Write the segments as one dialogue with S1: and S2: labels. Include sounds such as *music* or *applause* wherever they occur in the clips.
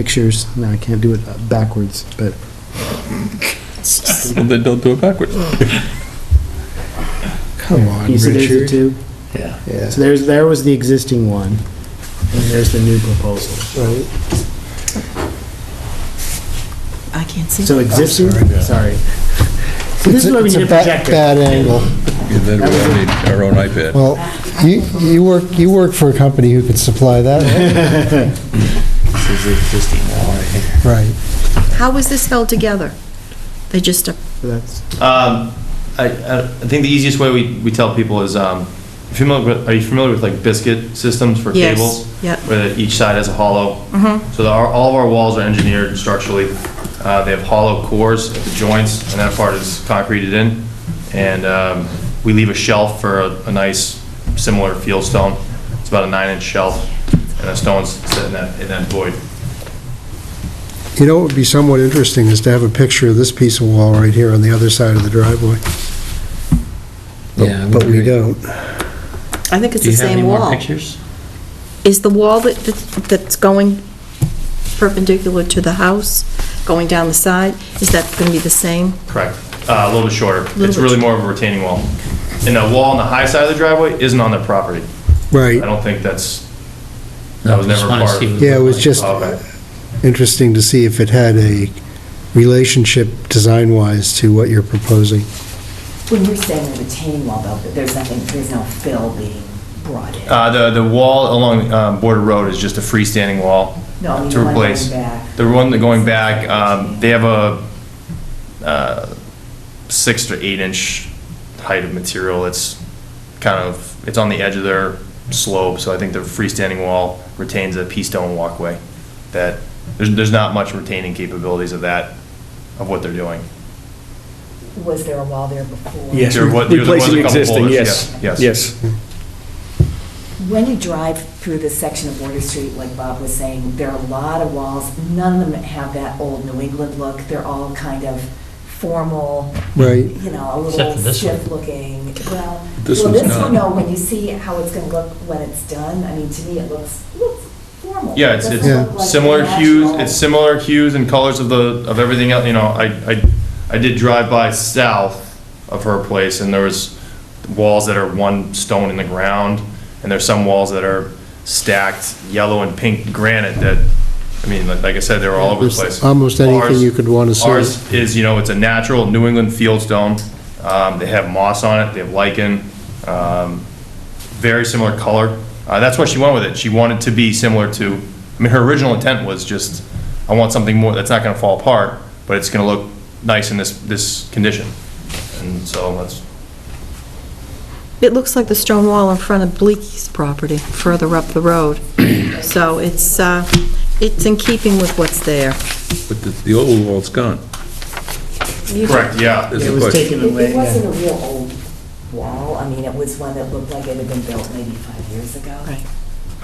S1: pictures. No, I can't do it uh, backwards, but
S2: Well, then don't do it backwards.
S1: come on, Richard. Two.
S3: Yeah.
S1: So there's there was the existing one, and there's the new proposal.
S4: I can't see.
S1: So existing,
S5: *laughs*
S1: sorry. So this is where we
S5: It's a
S1: need a
S5: bad,
S1: projector.
S5: bad angle.
S2: And then we all need our own iPad.
S5: Well, you, you work, you work for a company who could supply that,
S3: *laughs* This is the existing wall right here.
S5: right?
S4: How was this held together? They just, uh, up-
S1: That's
S6: Um, I, I I think the easiest way we, we tell people is, um, familiar, with- are you familiar with like biscuit systems for
S4: Yes,
S6: cables?
S4: yep.
S6: Where each side has a hollow. So the- our, all of our walls are engineered structurally. Uh, they have hollow cores at the joints, and that part is concreted in. And, um, we leave a shelf for a, a nice similar field stone. It's about a nine-inch shelf, and the stones sit in that, in that void.
S5: You know, what would be somewhat interesting is to have a picture of this piece of wall right here on the other side of the driveway. But-
S3: Yeah, I would
S5: But we
S3: agree.
S5: don't.
S4: I think it's
S3: Do
S4: the
S3: you have any
S4: same
S3: more
S4: wall.
S3: pictures?
S4: Is the wall that, that- that's going perpendicular to the house, going down the side, is that going to be the same?
S6: Correct. Uh, A little bit shorter.
S4: Little
S6: It's
S4: bit
S6: really more of a retaining wall. And the wall on the high side of the driveway isn't on the property. I
S5: Right,
S6: don't think that's, that was
S3: No, just
S6: never
S3: wanna
S6: part
S3: see
S6: of. Oh,
S3: what
S5: yeah, it
S3: looked
S5: was
S3: like.
S5: just
S6: Okay.
S5: interesting to see if it had a relationship design-wise to what you're proposing.
S7: When you're saying the retaining wall, though, that there's nothing, there's no fill being brought in.
S6: Uh, The, the wall along um, Border Road is just a freestanding wall
S7: No, I mean,
S6: to
S7: the one going
S6: replace.
S7: back.
S6: The one that going back, um, they have a uh, six to eight inch height of material. It's kind of, it's on the edge of their slope, so I think the freestanding wall retains a pea stone walkway. That, there's, there's not much retaining capabilities of that, of what they're doing.
S7: Was there a wall there before?
S8: Yes,
S6: There wa- there was a
S8: replacing
S6: couple
S8: existing,
S6: boulders,
S8: yes,
S6: yeah, yes.
S8: yes.
S7: When you drive through this section of Border Street, like Bob was saying, there are a lot of walls. None of them have that old New England look. They're all kind of formal,
S5: Right,
S7: you know, a
S3: Except
S7: little
S3: for this one.
S7: stiff-looking, well.
S2: This
S7: well,
S2: one's
S7: This
S2: not.
S7: one, no, when you see how it's going to look when it's done, I mean, to me, it looks, looks formal.
S6: Yeah, it's,
S7: It
S6: it's
S7: doesn't look like
S6: similar hues,
S7: natural.
S6: it's similar hues and colors of the, of everything else, you know, I, I, I did drive by south of her place and there was walls that are one stone in the ground and there's some walls that are stacked yellow and pink granite that, I mean, like, like I said, they were all over the
S5: There's
S6: place.
S5: almost anything
S6: Ours-
S5: you could wanna see.
S6: Ours is, you know, it's a natural New England field stone, um, they have moss on it, they have lichen, um, very similar color. Uh, that's why she went with it. She wanted to be similar to, I mean, her original intent was just, I want something more that's not gonna fall apart, but it's gonna look nice in this, this condition. And so that's,
S4: It looks like the stone wall in front of Bleaky's property, further up the
S3: *coughs*
S4: road. So it's, uh, it's in keeping with what's there.
S2: But the, the old wall's gone.
S6: correct, yeah.
S2: There's
S1: it
S2: a
S1: was
S2: question.
S1: taken
S7: It
S1: away.
S7: it wasn't
S1: Yeah.
S7: a real old wall, I mean, it was one that looked like it had been built maybe five years ago.
S4: Right.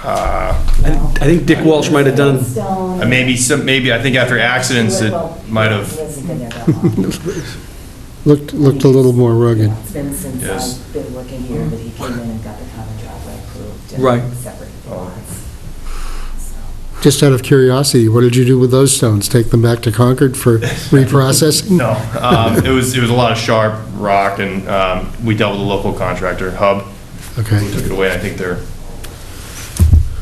S8: I I think Dick Walsh might have done,
S6: Uh, Maybe some, maybe, I think after accidents, it might have,
S7: *laughs*
S5: looked, looked a little more rugged.
S7: It's been since
S6: Yes.
S7: I've been working here, but he came in and got the common driveway approved. and
S8: Right.
S7: Separated
S6: Oh.
S7: the lots. So,
S5: Just out of curiosity, what did you do with those stones? Take them back to Concord for reprocessing?
S6: no. Um, it was, it was a lot of sharp rock and, um, we dealt with a local contractor, Hub, who
S5: Okay,
S6: took it away. I think they're,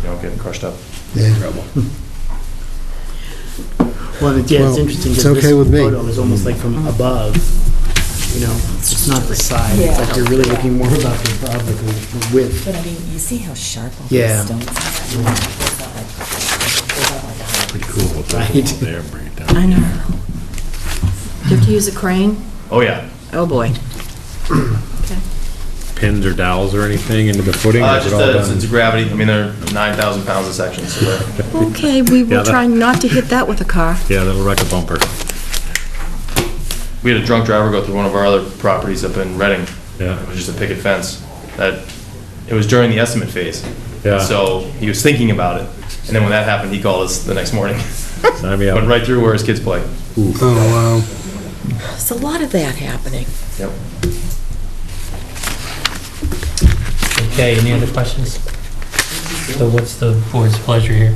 S6: you know, getting crushed up.
S5: yeah,
S1: Well, it's- yeah, it's
S5: Well,
S1: interesting
S5: it's
S1: because this
S5: okay with me.
S1: photo is almost like
S7: Mm.
S1: from above. You know, it's just not the side. It's like
S7: Yeah.
S1: you're really looking more about the above, like the the width.
S7: But I mean, you see how sharp all
S1: Yeah.
S7: these stones are? It's not like- it's not like a hard
S1: Right.
S4: I know. Do you have to use a crane?
S6: Oh, yeah.
S4: Oh, *laughs* boy.
S9: pins or dowels or anything into the footing? or
S6: Uh,
S9: is it
S6: just
S9: all
S6: the,
S9: done?
S6: it's a gravity, I mean, they're nine thousand pounds a section, so they're-
S4: Okay, we
S9: Yeah,
S4: will
S9: that-
S4: try not to hit that with a car.
S9: Yeah, that'll wreck a bumper.
S6: we had a drunk driver go through one of our other properties up in Reading.
S9: Yeah.
S6: It was just a picket fence, that, it was during the estimate phase.
S9: Yeah.
S6: So he was thinking about it, and then when that happened, he called us the next morning.
S9: Sign
S6: *laughs*
S9: me
S6: Went
S9: up.
S6: right through where his kids play.
S5: oh, wow.
S4: There's a lot of that happening.
S6: Yep.
S3: Okay, any other questions? So what's the board's pleasure here?